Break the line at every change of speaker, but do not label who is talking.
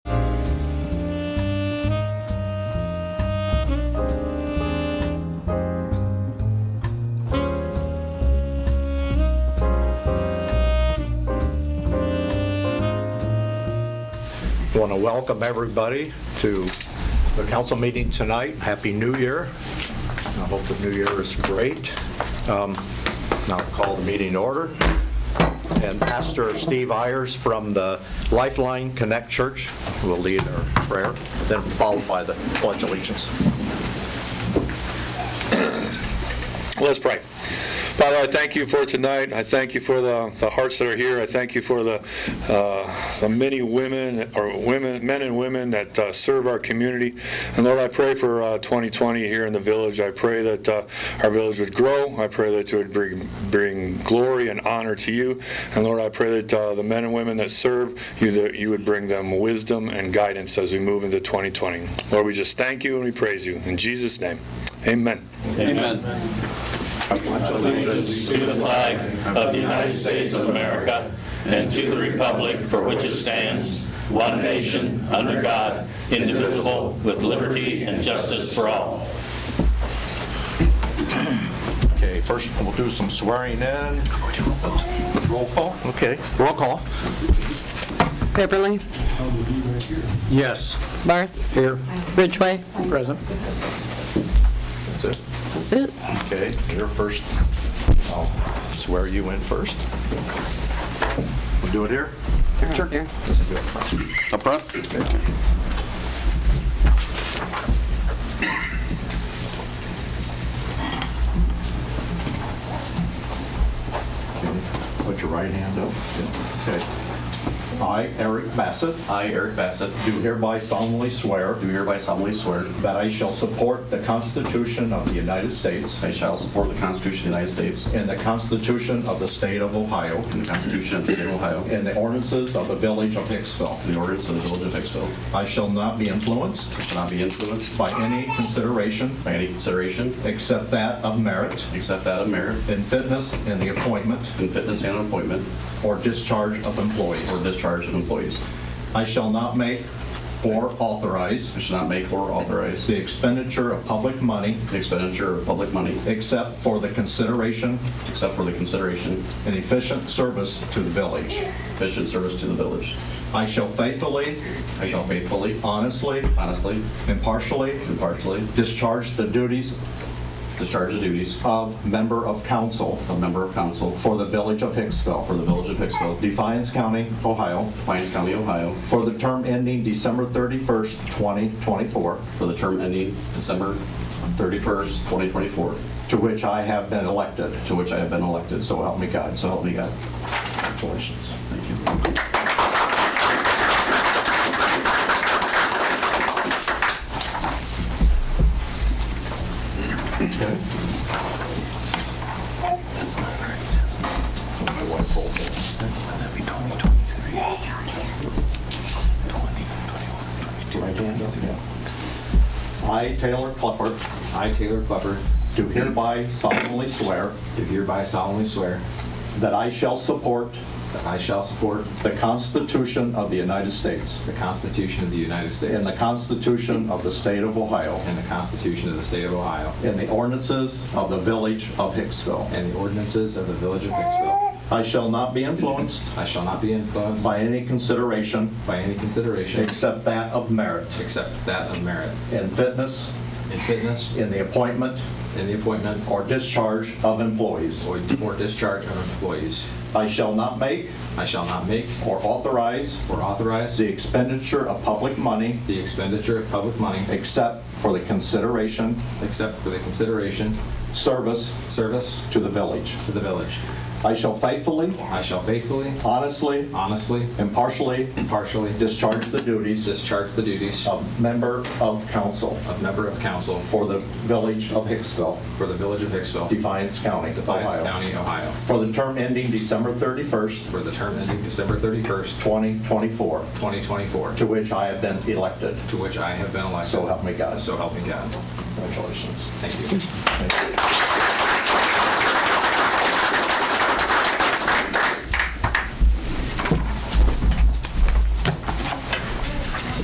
Want to welcome everybody to the council meeting tonight. Happy New Year. I hope the new year is great. Um, Now I'll call the meeting to order. And Pastor Steve Ayers from the Lifeline Connect Church will lead our prayer, then followed by the pledge allegiance.
Let's pray. Father, I thank you for tonight. I thank you for the, the hearts that are here. I thank you for the, uh, the many women, or women, men and women that uh, serve our community. And Lord, I pray for uh, 2020 here in the village. I pray that uh, our village would grow. I pray that it would bring, bring glory and honor to you. And Lord, I pray that uh, the men and women that serve you, that you would bring them wisdom and guidance as we move into 2020. Lord, we just thank you and we praise you. In Jesus' name, amen.
Amen.
allegiance to the flag of the United States of America and to the republic for which it stands, one nation, under God, indivisible, with liberty and justice for all.
Okay, first we'll do some swearing in. Roll call? Okay, roll call.
Pepperly,
Yes.
Barth,
Here.
Ridgway,
Present. That's it?
that's it.
Okay, you're first. I'll swear you in first. We'll do it here? Sure.
Here.
Up front?
Put your right hand up. Okay. I, Eric Bassett,
I, Eric Bassett,
do hereby solemnly swear
do hereby solemnly swear
that I shall support the Constitution of the United States
I shall support the Constitution of the United States
and the Constitution of the State of Ohio
and the Constitution of the State of Ohio and
and the ordinances of the Village of Hicksville.
the ordinance of the Village of Hicksville.
I shall not be influenced
I shall not be influenced
by any consideration
by any consideration
except that of merit
except that of merit
and fitness in the appointment
in fitness and appointment
or discharge of employees.
or discharge of employees.
I shall not make or authorize
I shall not make or authorize
the expenditure of public money
the expenditure of public money
except for the consideration
except for the consideration
and efficient service to the village.
efficient service to the village.
I shall faithfully,
I shall faithfully,
honestly,
honestly,
impartially
impartially
discharge the duties
discharge the duties
of member of council
of member of council
for the village of
for
Hicksville,
the Village of Hicksville,
Defiance County, Ohio,
Defiance County, Ohio,
for the term ending December 31st, 2024,
for the term ending December 31st, 2024,
to which I have been elected.
to which I have been elected. So
So help me God.
so help me God.
Congratulations.
Thank you.
I, Taylor Clifford,
I, Taylor Klepper,
do hereby solemnly swear
do hereby solemnly swear
that I shall support
that I shall support
the Constitution of the United States
the Constitution of the United States
and the Constitution of the State of Ohio
and the Constitution of the State of Ohio
and the ordinances of the Village of Hicksville.
and the ordinances of the Village of Hicksville.
I shall not be influenced
I shall not be influenced
by any consideration
by any consideration
except that of merit
except that of merit
and fitness
in fitness,
in the appointment
in the appointment,
or discharge of employees.
or or discharge of employees.
I shall not make
I shall not make
or authorize
or authorize
the expenditure of public money
the expenditure of public money
except for the consideration,
except for the consideration,
service
service
to the village.
to the village.
I shall faithfully,
I shall faithfully,
honestly,
honestly,
impartially
impartially
discharge the duties
discharge the duties
of member of council
of member of council
for the village of Hicksville,
for the Village of Hicksville,
Defiance County,
Defiance
Ohio,
County, Ohio,
for the term ending December 31st,
for the term ending December 31st,
2024,
2024,
to which I have been elected.
to which I have been elected.
So help me God.
So help me God.
Congratulations.
Thank you.
Thank you.